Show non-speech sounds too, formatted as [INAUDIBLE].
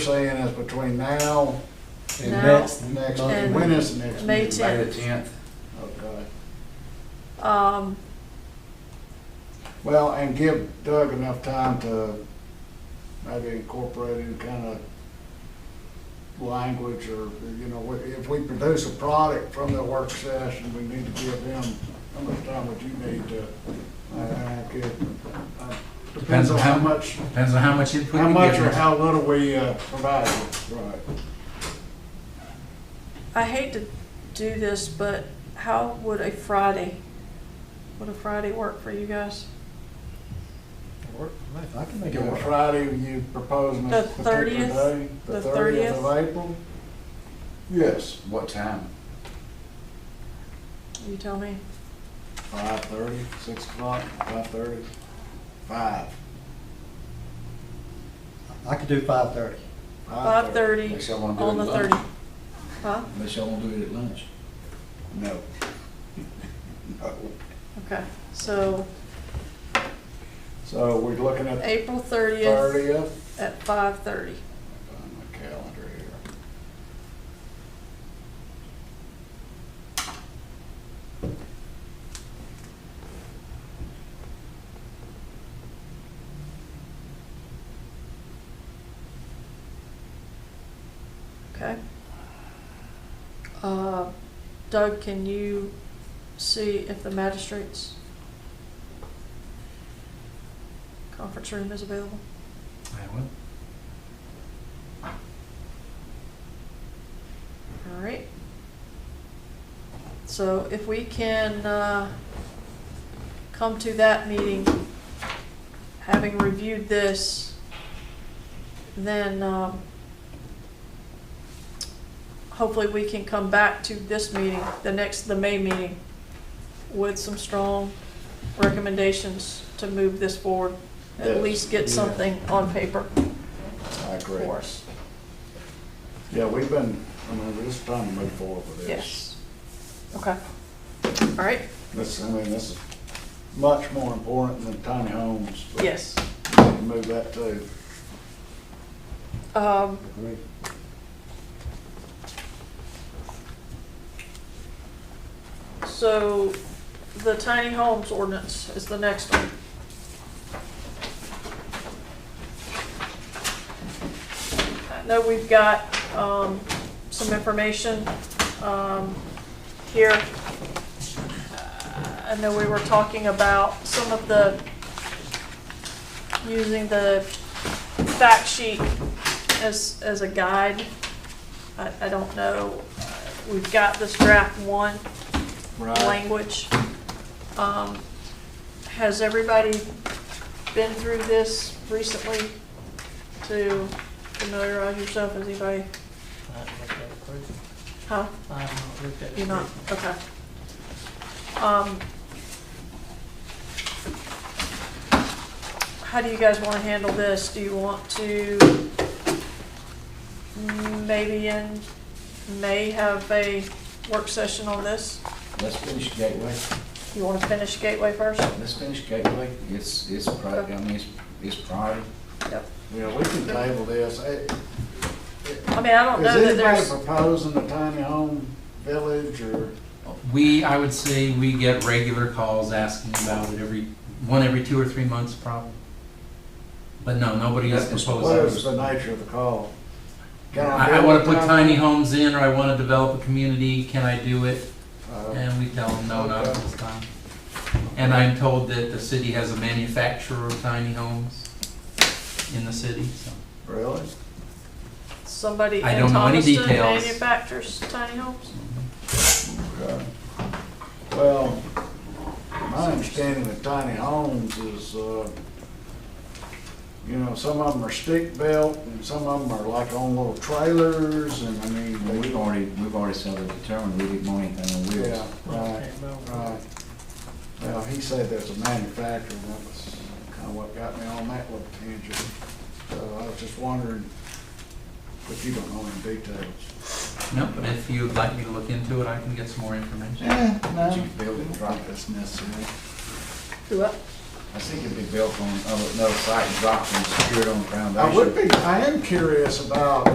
saying is between now and Now next, next, and when is the next May meeting? tenth. May the tenth. Okay. Um, Well, and give Doug enough time to maybe incorporate any kind of language or, you know, if we produce a product from the work session, we need to give them, how much time would you need to? I- I could- I- Depends on how much, Depends on how much input how you much or give us. how little we uh, provide, right? I hate to do this, but how would a Friday, would a Friday work for you guys? I can make it Yeah, work. Friday, you proposing The this particular 30th? day? The thirtieth of 30th? April? Yes, What time? You tell me. five thirty, six o'clock, five thirty, five. I could do five thirty. Five thirty Unless y'all wanna do on it the at thirty. lunch. Huh? Unless y'all want to do it at lunch. No. [LAUGHS] No. Okay, so So we're looking at the April thirtieth thirtieth. at five thirty. On my calendar here. Okay. Uh, Doug, can you see if the magistrates conference room is available? I will. All right. So if we can uh, come to that meeting, having reviewed this, then um, hopefully we can come back to this meeting, the next, the May meeting, with some strong recommendations to move this forward. At Yes. least get Yeah. something on paper I agree. for us. Yeah, we've been, I mean, we're just trying to move forward with this. Yes. Okay. All right. This, I mean, this is much more important than tiny homes. but Yes. we can Move that too. Um, Great. so the tiny homes ordinance is the next one. I know we've got, um, some information, um, here. I know we were talking about some of the, using the fact sheet as, as a guide. I, I don't know, we've got this draft one Right. language. Um, Has everybody been through this recently to familiarize yourself? Has anybody, I haven't looked at it first. huh? I haven't looked at it You're not, first. okay. Um, How do you guys want to handle this? Do you want to maybe in May have a work session on this? Let's finish Gateway. You want to finish Gateway first? Let's finish Gateway. It's, it's priority, I mean, it's, it's priority. Yep. Yeah, we can table this. It- it- I mean, I don't know that Is anybody there's, proposing a tiny home village or? We, I would say, we get regular calls asking about it every, one every two or three months probably. But no, nobody has That's What is proposed. the nature of the call? Can I, I build wanna put a tiny homes in, or I wanna develop a community, can I do it? Uh, And we tell them, no, not at this time. And I'm told that the city has a manufacturer of tiny homes in the city, so. Uh, Really? somebody in I don't know any Thomaston details. manufactures tiny homes. Okay. Well, my understanding of tiny homes is, uh, you know, some of them are stick built and some of them are like on little trailers and I Well, mean, We've already, we've already settled determined we didn't want anything on they, yeah, wheels. right, Okay, well, right. Well, he said there's a manufacturer and that was kind of what got me on that little tangent. So I was just wondering, but you don't know any details. No, but if you'd like me to look into it, I can get some more information. Yeah, But you can build it Don't right. drop this necessary. Do what? I think it'd be built on, another site, dropped and secured on the foundation. I would be, I am curious about